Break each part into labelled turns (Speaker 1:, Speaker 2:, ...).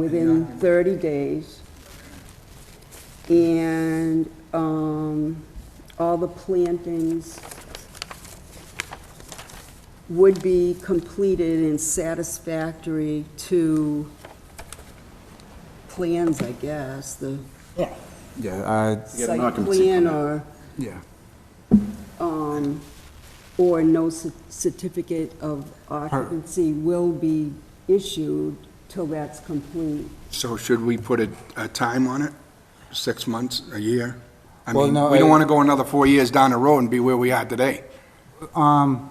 Speaker 1: within 30 days. And um, all the plantings would be completed and satisfactory to plans, I guess, the
Speaker 2: Yeah.
Speaker 3: Yeah, I,
Speaker 4: You get an
Speaker 1: site
Speaker 4: occupancy
Speaker 1: plan
Speaker 4: permit.
Speaker 1: or,
Speaker 3: yeah,
Speaker 1: or no cer- certificate of occupancy will be issued till that's complete.
Speaker 5: So should we put a, a time on it? Six months, a year? I
Speaker 3: Well,
Speaker 5: mean,
Speaker 3: no,
Speaker 5: we
Speaker 3: I-
Speaker 5: don't want to go another four years down the road and be where we are today.
Speaker 3: Um,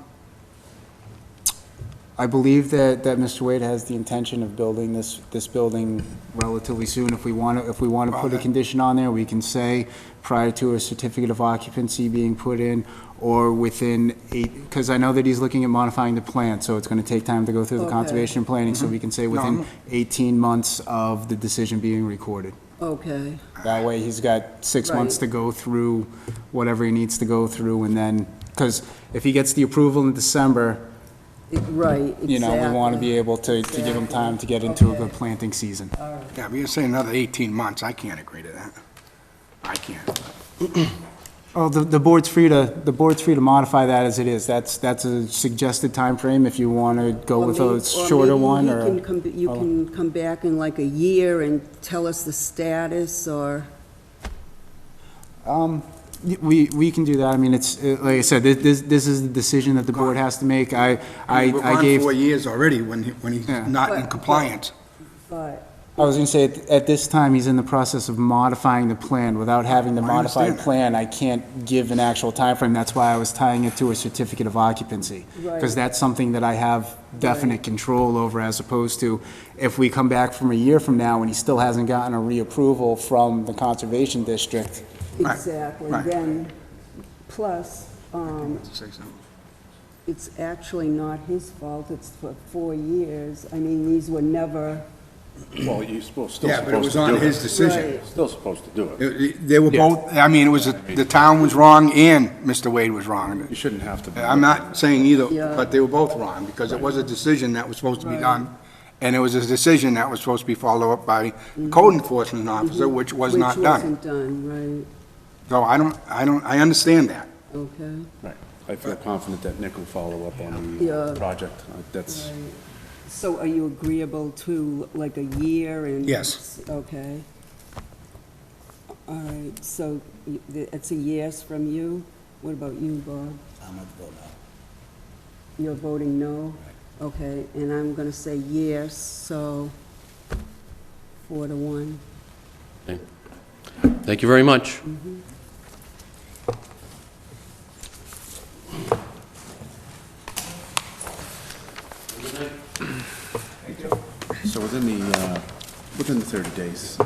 Speaker 3: I believe that, that Mr. Wade has the intention of building this, this building relatively soon. If we want to, if we want to put a condition on there, we can say prior to a certificate of occupancy being put in or within eight, because I know that he's looking at modifying the plan, so it's going to take time to go through the
Speaker 1: Okay.
Speaker 3: conservation planning, so we can say within 18 months of the decision being recorded.
Speaker 1: Okay,
Speaker 3: That way, he's got six
Speaker 1: Right.
Speaker 3: months to go through whatever he needs to go through, and then, because if he gets the approval in December,
Speaker 1: It- right, exactly.
Speaker 3: you know, we want to be able to, to give them time to get into a good
Speaker 1: Exactly.
Speaker 3: planting season.
Speaker 5: Yeah, if you're saying another 18 months, I can't agree to that. I can't.
Speaker 3: Oh, the, the board's free to, the board's free to modify that as it is. That's, that's a suggested time frame. if you want to go
Speaker 1: Or
Speaker 3: with
Speaker 1: may-
Speaker 3: a shorter
Speaker 1: maybe
Speaker 3: one,
Speaker 1: you
Speaker 3: or,
Speaker 1: can come- You
Speaker 3: or-
Speaker 1: can come back in like a year and tell us the status, or,
Speaker 3: um, y- we, we can do that. I mean, it's, uh, like I said, thi- this, this is the decision that the board has to make. I, I,
Speaker 5: We've
Speaker 3: I
Speaker 5: gone
Speaker 3: gave.
Speaker 5: four years already when, he- when he's
Speaker 3: Yeah.
Speaker 5: not
Speaker 1: But-
Speaker 5: in
Speaker 1: but-
Speaker 5: compliance.
Speaker 1: but,
Speaker 3: I was gonna say, at- at this time, he's in the process of modifying the plan. Without having the
Speaker 5: I
Speaker 3: modified
Speaker 5: understand that.
Speaker 3: plan, I can't give an actual timeframe. That's why I was tying it to a certificate of occupancy.
Speaker 1: Right.
Speaker 3: Because that's something that I have definite control over as opposed to if we come back from a year from now and he still hasn't gotten a reapproval from the conservation district.
Speaker 5: Right,
Speaker 1: exactly,
Speaker 5: right.
Speaker 1: then, plus, um,
Speaker 5: Say something.
Speaker 1: it's actually not his fault, it's for four years, I mean, these were never,
Speaker 4: Well, you're supposed, still
Speaker 5: Yeah, but it
Speaker 4: supposed
Speaker 5: was
Speaker 4: to
Speaker 5: on
Speaker 4: do
Speaker 5: his
Speaker 4: it.
Speaker 5: decision.
Speaker 1: Right.
Speaker 4: Still supposed to do it.
Speaker 5: It- it- They were both, I mean, it was, a- the town was wrong and Mr. Wade was wrong.
Speaker 4: You shouldn't have to. be-
Speaker 5: I'm not saying either,
Speaker 1: Yeah.
Speaker 5: but they were both wrong, because it was a decision that was supposed to be done, and it was a decision that was supposed to be followed up by the code enforcement officer, which was
Speaker 1: Mm-hmm. which
Speaker 5: not done.
Speaker 1: wasn't done,
Speaker 5: So I don't, I don't, I understand that.
Speaker 1: right, okay.
Speaker 4: Right. I feel confident that Nick will follow up on
Speaker 1: Yeah.
Speaker 4: the project. Uh, That's,
Speaker 1: So are you agreeable to like a year and?
Speaker 5: Yes.
Speaker 1: Okay. All right, so y- th- it's a yes from you? What about you, Bob? I'm gonna vote no. You're voting no? Okay, and I'm gonna say yes, so four to one.
Speaker 6: Thank you very much.
Speaker 4: so within the, uh, within the 30 days,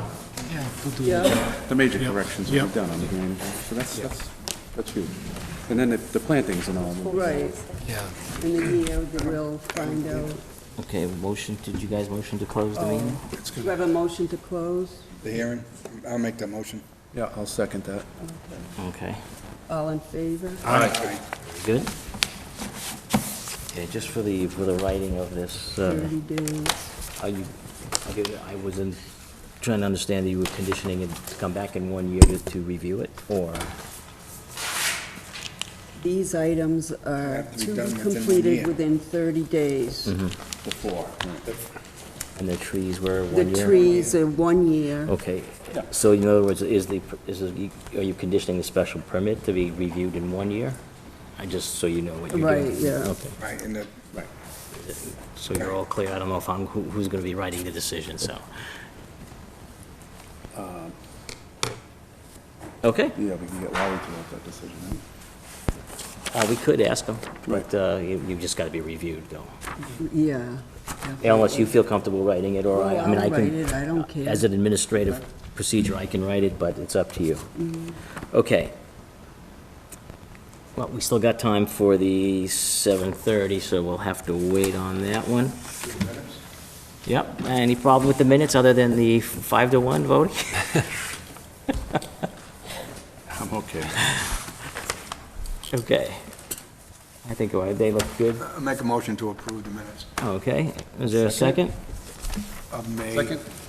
Speaker 1: Yeah,
Speaker 4: the major corrections will be done on the green. So that's, that's, that's huge. And then the the plantings and all.
Speaker 1: right. Yeah. In a year, then we'll find out.
Speaker 7: Okay, motion, did you guys motion to close the meeting?
Speaker 1: Do you have a motion to close?
Speaker 5: The hearing, I'll make that motion.
Speaker 4: Yeah, I'll second that.
Speaker 7: Okay,
Speaker 1: All in favor?
Speaker 7: good? Okay, just for the, for the writing of this, uh,
Speaker 1: Thirty days.
Speaker 7: are you, I give- I was in, trying to understand that you were conditioning it to come back in one year to- to review it, or?
Speaker 1: These items are
Speaker 5: Have to be
Speaker 1: to
Speaker 5: done
Speaker 1: be
Speaker 5: within one
Speaker 1: completed
Speaker 5: year.
Speaker 1: within 30 days.
Speaker 7: Mm-hmm.
Speaker 4: Before.
Speaker 7: And the trees were
Speaker 1: The
Speaker 7: one year? Oh.
Speaker 1: trees are one year.
Speaker 7: Okay, so in other words, is the, is, the- are you conditioning the special permit to be reviewed in one year? I just, so you know what you're doing.
Speaker 1: Right, yeah.
Speaker 7: Okay,
Speaker 5: Right, and the, right.
Speaker 7: so you're all clear, I don't know if I'm, who- who's gonna be writing the decision, so. Uh, Okay.
Speaker 4: Yeah, we can get Larry to make that decision. right?
Speaker 7: Uh, we could ask them, but,
Speaker 4: Right.
Speaker 7: uh, you, you've just gotta be reviewed though.
Speaker 1: Yeah.
Speaker 7: Unless you feel comfortable writing it, or I, I mean, I
Speaker 1: I'll write
Speaker 7: can,
Speaker 1: it, I don't care.
Speaker 7: as an administrative procedure, I can write it, but it's up to you.
Speaker 1: Mm-hmm.
Speaker 7: Okay. Well, we still got time for the seven thirty, so we'll have to wait on that one. Yep, any problem with the minutes other than the five to one voting?
Speaker 4: I'm okay.
Speaker 7: Okay. I think uh, they look good.
Speaker 5: I'll make a motion to approve the minutes
Speaker 7: Okay, is there a second?
Speaker 5: of May.
Speaker 4: Second.